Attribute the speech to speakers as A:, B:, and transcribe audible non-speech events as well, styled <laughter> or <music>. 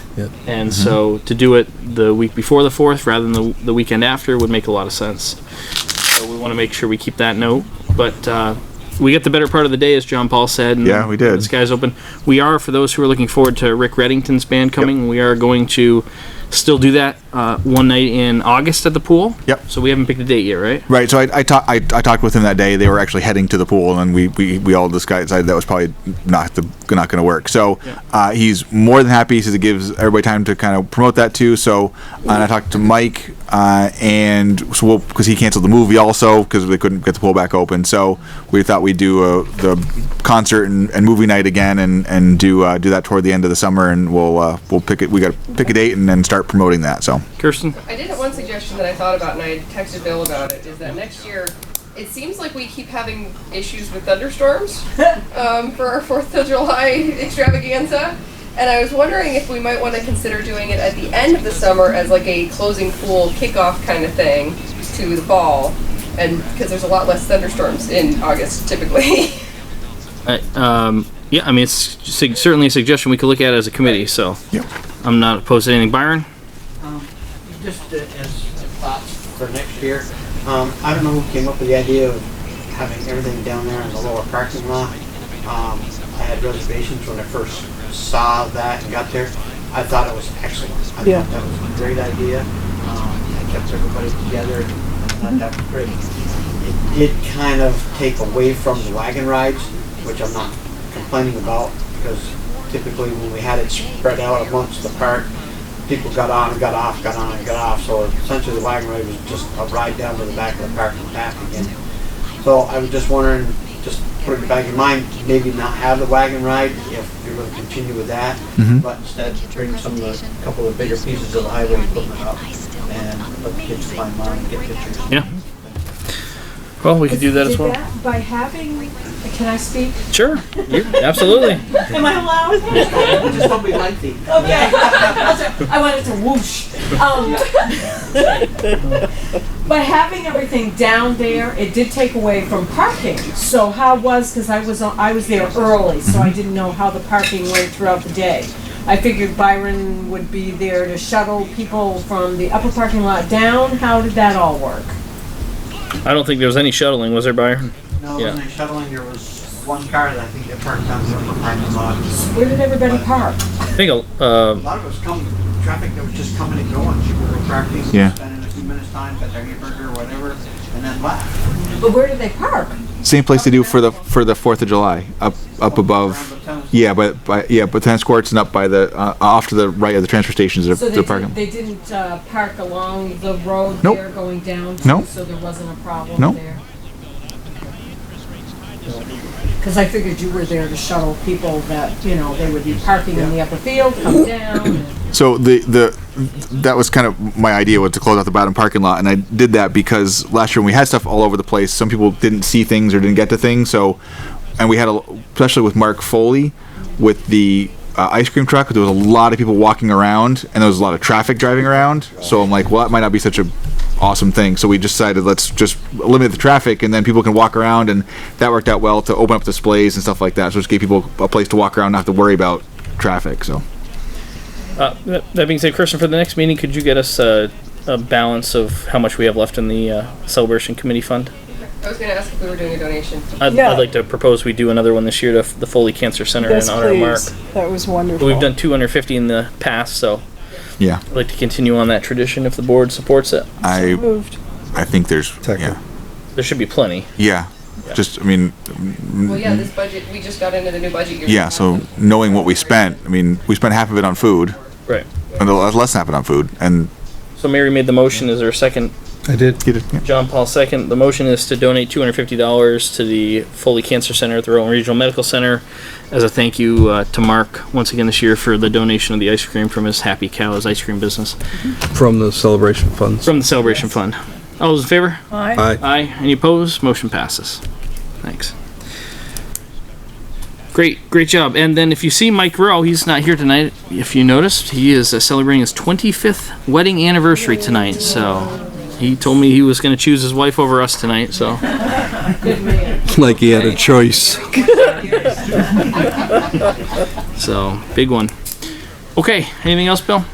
A: Yep.
B: And so to do it the week before the 4th rather than the, the weekend after would make a lot of sense. So we want to make sure we keep that note. But uh, we get the better part of the day, as John Paul said. And
C: Yeah, we did.
B: The sky's open. We are, for those who are looking forward to Rick Reddington's band coming, we are going to still do that uh, one night in August at the pool.
C: Yep.
B: So we haven't picked a date yet, right?
C: Right. So I I, ta- I I talked with him that day. They were actually heading to the pool, and we we, we all decided that was probably not the not going to work. So uh, he's more than happy. He says it gives everybody time to kind of promote that too. So uh, and I talked to Mike, uh, and so we'll because he canceled the movie also because they couldn't get the pool back open. So we thought we'd do uh the concert and, and movie night again, and and do uh, do that toward the end of the summer, and we'll uh, we'll pick it. We got to pick a date and then start promoting that. So
B: Kirsten?
D: I did have one suggestion that I thought about and I texted Bill about it is that next year it seems like we keep having issues with thunderstorms um, for our Fourth of July extravaganza, and I was wondering if we might want to consider doing it at the end of the summer as like a closing pool kickoff kind of thing to the fall, and because there's a lot less thunderstorms in August typically. <laughs>
B: I, um, yeah, I mean, it's sig- certainly a suggestion we could look at as a committee, so
C: Yep.
B: I'm not opposed to anything. Byron?
E: Just uh, as thoughts for next year, um, I don't know who came up with the idea of having everything down there in the lower parking lot. Um, I had reservations when I first saw that and got there. I thought it was excellent. I
F: Yeah.
E: thought that was a great idea. Um, I kept everybody together. I thought that was great. It did kind of take away from the wagon rides, which I'm not complaining about because typically when we had it spread out amongst the park, people got on and got off, got on and got off. So essentially the wagon ride was just a ride down to the back of the park and back again. So I was just wondering, just putting it back in mind, maybe not have the wagon ride if you're gonna continue with that, but instead bring some of the, couple of bigger pieces of the highway equipment up and let the kids climb on and get pictures.
B: Yeah. Well, we could do that as well.
F: By having, can I speak? <laughs>
B: Sure. absolutely.
F: Am I allowed?
E: Just what we like the.
F: Okay. I wanted to whoosh. Um, <laughs> by having everything down there, it did take away from parking. So how was, because I was, on- I was there early, so I didn't know how the parking went throughout the day. I figured Byron would be there to shuttle people from the upper parking lot down. How did that all work?
B: I don't think there was any shuttling, was there, Byron?
E: No,
B: Yeah.
E: it wasn't a shuttling, there was one car that I think that parked down there for parking lot.
F: Where did everybody park?
B: I think, uh,
E: A lot of us come, traffic that was just coming and going, people were parking,
C: Yeah.
E: spending a few minutes time, got their hamburger or whatever, and then left.
F: But where did they park?
C: same place they do for the for the Fourth of July up up above.
E: Around the tennis-
C: Yeah, but by, yeah, but tennis courts and up by the uh, off to the right of the transfer stations. The,
F: So they,
C: the
F: did-
C: parking.
F: they didn't uh, park along the road
C: Nope.
F: there going down?
C: Nope.
F: So there wasn't a
C: Nope.
F: problem there? Because I figured you were there to shuttle people that, you know, they would be parking in the upper field, come down. and-
C: So the the that was kind of my idea was to close out the bottom parking lot, and I did that because last year when we had stuff all over the place, some people didn't see things or didn't get to things. So, and we had a, especially with Mark Foley, with the uh, ice cream truck, there was a lot of people walking around, and there was a lot of traffic driving around. So I'm like, well, that might not be such a awesome thing. So we decided let's just limit the traffic, and then people can walk around, and that worked out well to open up displays and stuff like that. So just gave people a place to walk around, not have to worry about traffic. So.
B: uh, that that being said, Kirsten, for the next meeting, could you get us a, a balance of how much we have left in the uh, celebration committee fund?
D: I was going to ask if we were doing a donation.
B: I'd,
G: Yeah.
B: I'd like to propose we do another one this year to f- the Foley Cancer Center
G: Yes,
B: in honor of Mark.
G: please. That was wonderful.
B: We've done 250 in the past, so
C: Yeah,
B: I'd like to continue on that tradition if the board supports it.
C: I
G: Moved.
C: I think there's
A: Second.
B: There should be plenty.
C: yeah, yeah. Just I mean,
D: Well, yeah, this budget we just got into the new budget year.
C: Mm-hmm. yeah. So knowing what we spent, I mean, we spent half of it on food,
B: Right.
C: and the less less than half of it on food, and
B: So Mary made the motion. Is there a second?
A: I did.
C: get it. Yeah.
B: John Paul second. The motion is to donate two hundred fifty dollars to the Foley Cancer Center at the Rowan Regional Medical Center as a thank you uh, to Mark once again this year for the donation of the ice cream from his Happy Cows ice cream business
A: From the celebration funds.
B: from the Celebration Fund. All those in favor?
G: Aye.
A: I
B: Aye. Any opposed? Motion passes. Thanks. Great, great job. And then if you see Mike Rowe, he's not here tonight. If you noticed, he is uh, celebrating his 25th wedding anniversary tonight. So he told me he was going to choose his wife over us tonight. So
A: like he had a choice.
B: so big one. Okay, anything else, Bill?